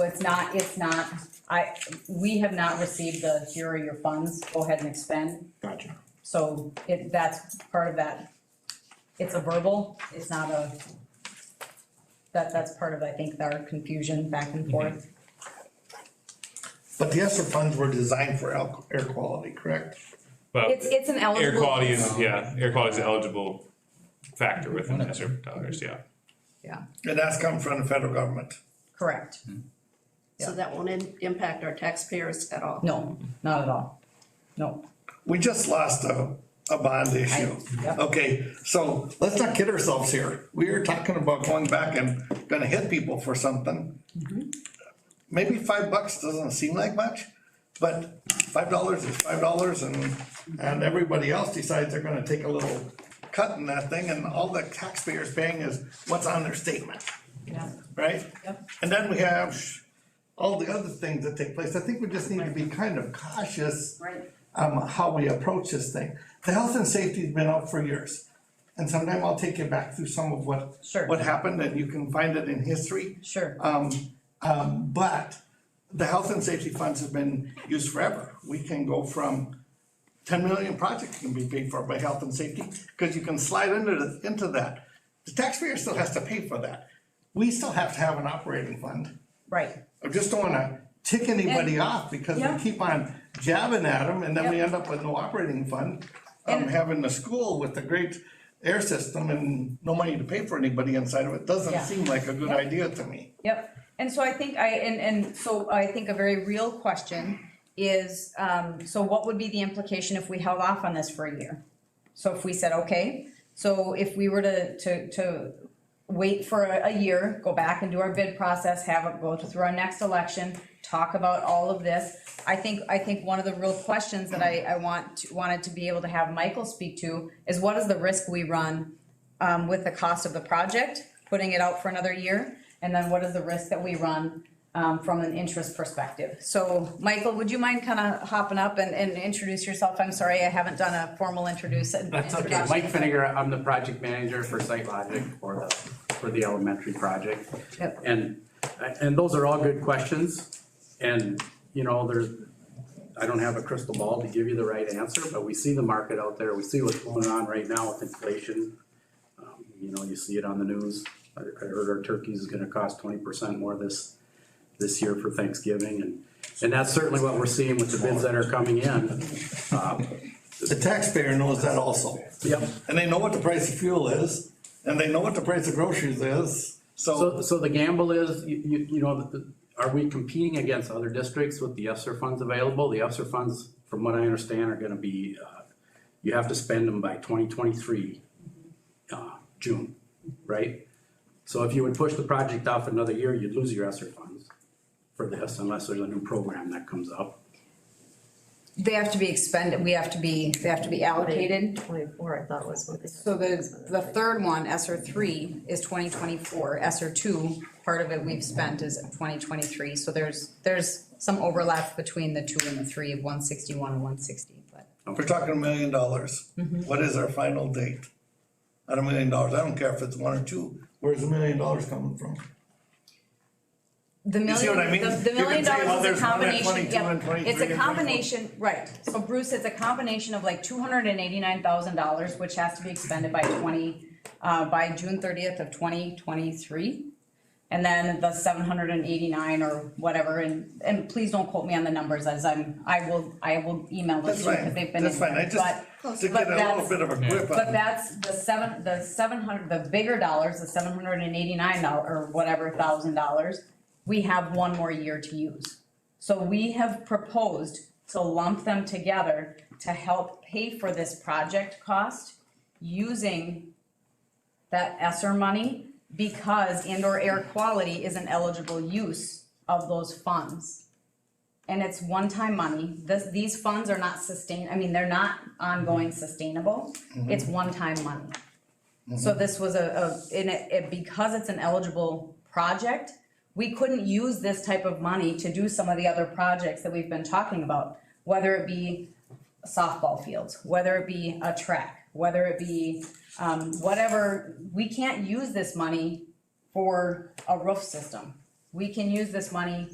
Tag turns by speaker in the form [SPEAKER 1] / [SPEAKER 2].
[SPEAKER 1] it's not, it's not, I, we have not received the, here are your funds, go ahead and expend.
[SPEAKER 2] Gotcha.
[SPEAKER 1] So it, that's part of that, it's a verbal, it's not a, that, that's part of, I think, our confusion back
[SPEAKER 3] Mm-hmm.
[SPEAKER 1] and forth.
[SPEAKER 2] But the ESSER funds were designed for al- air quality, correct?
[SPEAKER 3] But
[SPEAKER 1] It's, it's an
[SPEAKER 3] air
[SPEAKER 1] eligible.
[SPEAKER 3] quality is, yeah, air quality is an eligible factor within the SRF dollars, yeah.
[SPEAKER 1] Yeah,
[SPEAKER 2] And that's come from the federal government.
[SPEAKER 1] correct.
[SPEAKER 4] So that won't im- impact our taxpayers at all.
[SPEAKER 1] No, not at all. No.
[SPEAKER 2] We just lost a, a bond issue.
[SPEAKER 1] yep.
[SPEAKER 2] Okay, so let's not kid ourselves here. We are talking about going back and gonna hit people for something. Maybe five bucks doesn't seem like much, but five dollars is five dollars and, and everybody else decides they're gonna take a little cut in that thing and all the taxpayers paying is what's on their statement.
[SPEAKER 1] Yeah.
[SPEAKER 2] right?
[SPEAKER 1] Yep.
[SPEAKER 2] And then we have all the other things that take place. I think we just need to be kind of cautious.
[SPEAKER 4] Right.
[SPEAKER 2] Um, how we approach this thing. The health and safety's been out for years. And sometime I'll take you back through some of what.
[SPEAKER 1] Sure.
[SPEAKER 2] What happened and you can find it in history.
[SPEAKER 1] Sure.
[SPEAKER 2] But the health and safety funds have been used forever. We can go from ten million projects can be paid for by health and safety, because you can slide into the, into that. The taxpayer still has to pay for that. We still have to have an operating fund.
[SPEAKER 1] Right.
[SPEAKER 2] I just don't wanna tick anybody off because
[SPEAKER 1] Yeah.
[SPEAKER 2] we keep on jabbing at them and then we
[SPEAKER 1] Yep.
[SPEAKER 2] end up with no operating fund. Um, having the school with a great air system and no money to pay for anybody inside of it doesn't
[SPEAKER 1] Yeah.
[SPEAKER 2] seem like a good idea to me.
[SPEAKER 1] Yep, and so I think I, and, and so I think a very real question is, um, so what would be the implication if we held off on this for a year? So if we said, okay, so if we were to, to, to wait for a, a year, go back and do our bid process, have it go through our next election, talk about all of this. I think, I think one of the real questions that I, I want, to- wanted to be able to have Michael speak to is what is the risk we run um, with the cost of the project, putting it out for another year? And then what is the risk that we run, um, from an interest perspective? So, Michael, would you mind kind of hopping up and, and introduce yourself? I'm sorry, I haven't done a formal introduce.
[SPEAKER 5] That's okay. Mike Finnegar, I'm the project manager for SiteLogic for the, for the elementary project.
[SPEAKER 1] Yep.
[SPEAKER 5] And, and those are all good questions. And, you know, there's, I don't have a crystal ball to give you the right answer, but we see the market out there. We see what's going on right now with inflation. Um, You know, you see it on the news. I I heard our turkey is gonna cost twenty percent more this, this year for Thanksgiving. And, and that's certainly what we're seeing with the bids that are coming in.
[SPEAKER 2] The taxpayer knows that also.
[SPEAKER 5] Yep.
[SPEAKER 2] And they know what the price of fuel is, and they know what the price of groceries is, so.
[SPEAKER 5] So, so the gamble is, you, you, you know, the- the- are we competing against other districts with the ESSER funds available? The ESSER funds, from what I understand, are gonna be, uh, you have to spend them by twenty twenty-three, uh, June, right? So if you would push the project off another year, you'd lose your ESSER funds for this unless there's a new program that comes up.
[SPEAKER 1] They have to be expended, we have to be, they have to be allocated.
[SPEAKER 6] Twenty-four, I thought was what they.
[SPEAKER 1] So the, the third one, ESER three, is twenty twenty-four, ESER two, part of it we've spent is twenty twenty-three, so there's, there's some overlap between the two and the three of one sixty-one and one sixty, but.
[SPEAKER 2] If we're talking a million dollars,
[SPEAKER 5] Mm-hmm.
[SPEAKER 2] what is our final date? At a million dollars, I don't care if it's one or two, where's a million dollars coming from?
[SPEAKER 1] The
[SPEAKER 2] see
[SPEAKER 1] million,
[SPEAKER 2] what I mean?
[SPEAKER 1] the- the
[SPEAKER 2] You
[SPEAKER 1] million
[SPEAKER 2] can say, well,
[SPEAKER 1] dollars is
[SPEAKER 2] there's
[SPEAKER 1] a
[SPEAKER 2] one at
[SPEAKER 1] combination,
[SPEAKER 2] 22 and
[SPEAKER 1] yep,
[SPEAKER 2] 23
[SPEAKER 1] it's a
[SPEAKER 2] and
[SPEAKER 1] combination, right, so Bruce, it's a combination of like two hundred and eighty-nine thousand dollars, which has to be expended by twenty, uh, by June thirtieth of twenty twenty-three. And then the seven hundred and eighty-nine or whatever, and, and please don't quote me on the numbers as I'm, I will, I will email
[SPEAKER 2] That's
[SPEAKER 1] this to you,
[SPEAKER 2] fine,
[SPEAKER 1] because they've been
[SPEAKER 2] that's
[SPEAKER 1] in
[SPEAKER 2] fine, I
[SPEAKER 1] there,
[SPEAKER 2] just, to
[SPEAKER 1] but
[SPEAKER 2] get a little
[SPEAKER 1] that's-
[SPEAKER 2] bit of a grip
[SPEAKER 1] but
[SPEAKER 2] on,
[SPEAKER 1] that's the seven, the seven hundred, the bigger dollars, the seven hundred and eighty-nine dollar, or whatever thousand dollars, we have one more year to use. So we have proposed to lump them together to help pay for this project cost using that ESSER money because indoor air quality is an eligible use of those funds. And it's one-time money. This, these funds are not sustain, I mean, they're not ongoing sustainable. It's one-time money. So this was a, a, in it, it- because it's an eligible project, we couldn't use this type of money to do some of the other projects that we've been talking about. Whether it be softball fields, whether it be a track, whether it be, um, whatever, we can't use this money for a roof system. We can use this money